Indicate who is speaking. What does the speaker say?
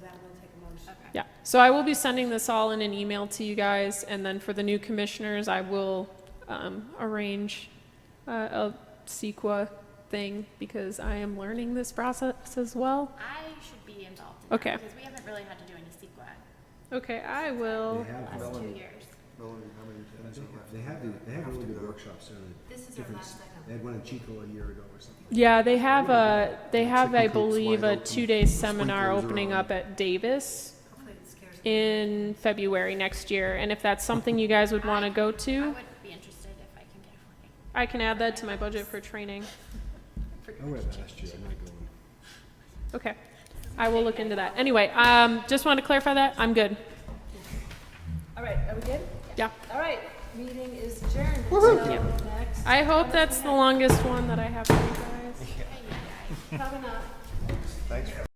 Speaker 1: that will take a motion.
Speaker 2: Okay.
Speaker 3: Yeah, so I will be sending this all in an email to you guys, and then for the new commissioners, I will um, arrange uh, a CEQA thing, because I am learning this process as well.
Speaker 2: I should be involved in that.
Speaker 3: Okay.
Speaker 2: Because we haven't really had to do any CEQA
Speaker 3: Okay, I will,
Speaker 4: They have,
Speaker 2: last two
Speaker 4: Melanie,
Speaker 2: years.
Speaker 4: Melanie, how many times they have, they have, the- they have really good workshops there.
Speaker 1: This is our
Speaker 4: Different
Speaker 1: last
Speaker 4: s-
Speaker 1: item.
Speaker 4: They had one in Chico a year ago or something.
Speaker 3: yeah, they have a, they have, I
Speaker 4: Chicken coop's
Speaker 3: believe,
Speaker 4: wide
Speaker 3: a
Speaker 4: open,
Speaker 3: two-day seminar
Speaker 4: sprinklers are
Speaker 3: opening
Speaker 4: on.
Speaker 3: up at Davis
Speaker 1: Hopefully it scares them.
Speaker 3: in February next year, and if that's something you guys would want to go
Speaker 2: I
Speaker 3: to,
Speaker 2: would be interested if I can get a
Speaker 3: I can add that to my budget for training.
Speaker 4: I
Speaker 2: flight.
Speaker 4: went last year, I'm gonna go. in.
Speaker 3: Okay, I will look into that. Anyway, um, just wanted to clarify that, I'm good.
Speaker 5: All right, are we good?
Speaker 3: Yeah.
Speaker 5: All right, meeting is adjourned until
Speaker 3: Yeah.
Speaker 5: next,
Speaker 3: I hope that's the longest one that I have for you guys.
Speaker 5: probably not.